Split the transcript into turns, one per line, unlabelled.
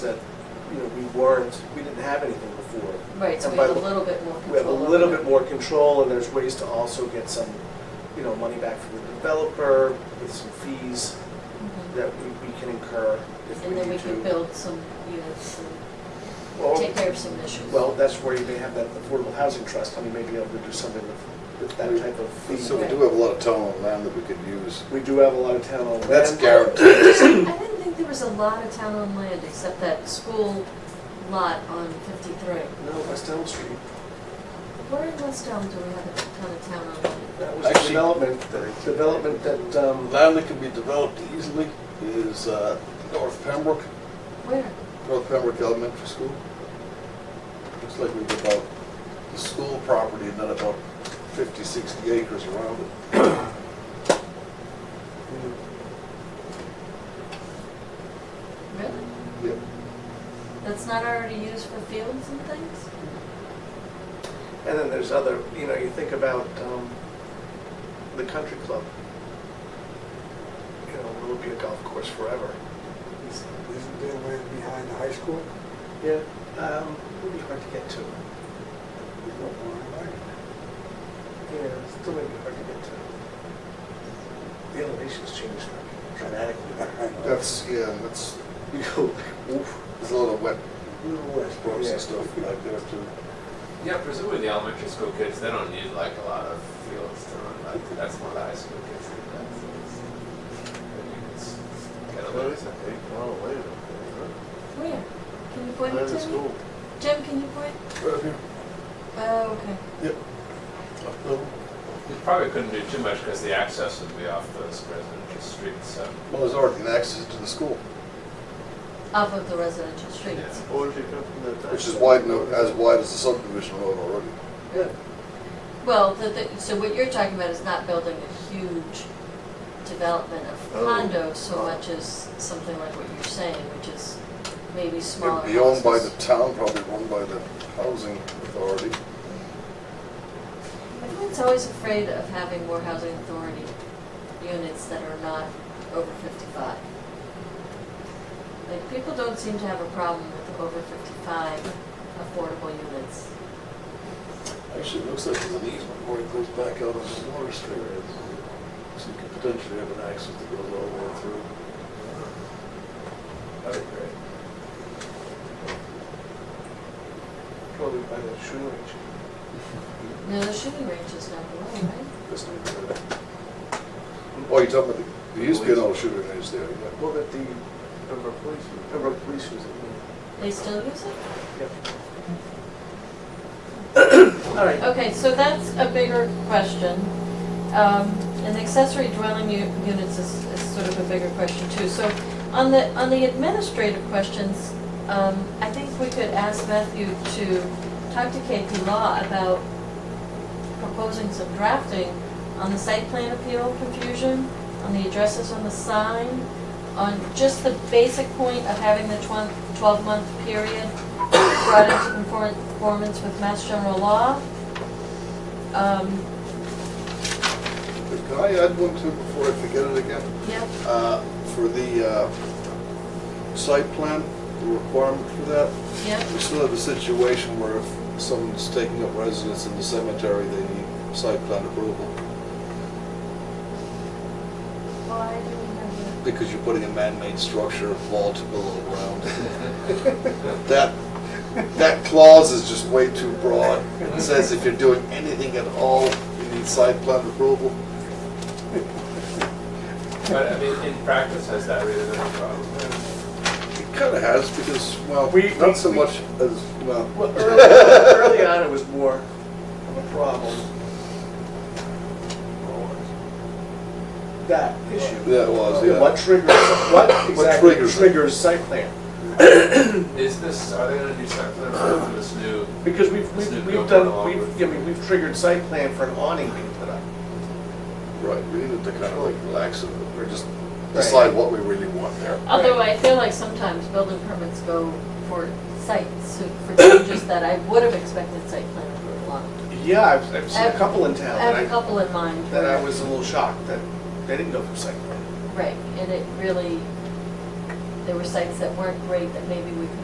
that, you know, we weren't, we didn't have anything before.
Right, so
And
we have
by
a
the-
little bit more control.
We have a little
over
bit more control, and there's ways to also get some, you know, money back from the developer with some fees
it.
that we, we can incur if we
Mm-hmm. And then we
need
can
to.
build some units and
Well,
take care of some issues.
Well, that's where you may have that affordable housing trust, and you may be able to do something with, with that type of
So
fee.
we do have a lot of town owned land that we could use.
We do have a lot of town on land.
That's guaranteed.
I didn't think there was a lot of town on land except that school lot on fifty-three.
No, West Elm Street,
Where in West Elm do we have a ton of town on land?
that was the
Actually-
development, the development that, um,
Land that can be developed easily is uh, North Pembroke.
Where?
North Pembroke Elementary School,
Looks like we've about the school property and then about 50, 60 acres around it.
Really?
Yep.
That's not already used for fields and things?
And then there's other, you know, you think about um, the country club. You know, will it be a golf course forever?
Isn't there land behind the high school?
Yeah. Um, it'll be hard to get to.
We don't want to like it.
Yeah, it's still maybe hard to get to. The elevation's changed dramatically.
that's, yeah, that's,
you go, oof.
there's a lot of wet
Little west.
brooks
Yeah.
and stuff back there too.
Yeah, presumably the elementary school kids, they don't need like a lot of fields to run, like, that's more the high school kids do that. so it's- but you can s- Get a little something.
Where? Can you point it to me? Jim, can you point?
Right here.
Oh, okay.
Up there.
You probably couldn't do too much because the access would be off those residential streets, so.
Well, there's already an access to the school,
Off of the residential streets.
which is wide, no- as wide as the subdivision road already.
Yeah.
Well, the, the, so what you're talking about is not building a huge development of
Oh.
condos so much as something like what you're saying, which is maybe smaller
It'd
houses.
be owned by the town, probably run by the housing authority.
Everyone's always afraid of having more housing authority units that are not over fifty-five. Like, people don't seem to have a problem with over fifty-five affordable units.
Actually, it looks like there's an easement where it goes back out onto Water Street. So you could potentially have an access that goes all the way through.
That'd be great.
Probably by the shooting range.
No, the shooting range is not the way, right?
this neighborhood. Oh, you're talking about, the- there used to be an old shooting range there, yeah.
Well, that the Pembroke Police, Pembroke Police was in
They still use it?
there. Yep. All right.
Okay, so that's a bigger question. Um, And accessory dwelling u- units is, is sort of a bigger question too. So on the, on the administrative questions, um, I think we could ask Matthew to talk to KP Law about proposing some drafting on the site plan appeal confusion, on the addresses on the sign, on just the basic point of having the twelve-month period brought into conform- conformance with Mass General Law. Um,
Can I add one too before I forget it again?
yep,
Uh, For the uh, site plan, the requirement for that,
yep,
we still have a situation where if someone's taking up residence in the cemetery, they need site plan approval
why do we have
because you're putting a man-made structure, vault below ground. That, that clause is just way too broad. It says if you're doing anything at all, you need site plan approval.
But I mean, in practice, has that really been a problem?
It kind of has because, well,
We-
not so
we-
much as, well.
Well, early, early on, it was more of a problem. That issue.
Yeah, it was, yeah.
What triggers, what exactly
triggers it?
triggers site plan?
Is this, are they gonna do something for this new,
Because we've,
Isn't
we've
it
we've
going
done,
along
we've,
with-
I mean, we've triggered site plan for an awning being put up.
Right, we needed to kind of like relax and or just
Right.
decide what we really want there.
the- Although I feel like sometimes building permits go for sites, so for changes that I would have expected site plan approval on.
Yeah, I've, I've seen a
I've-
couple in
Oh, I
town
have a
that
couple in mind.
I, that I
where-
was a little shocked that they didn't go for site plan.
Right, and it really, it there were sites that weren't great that maybe we could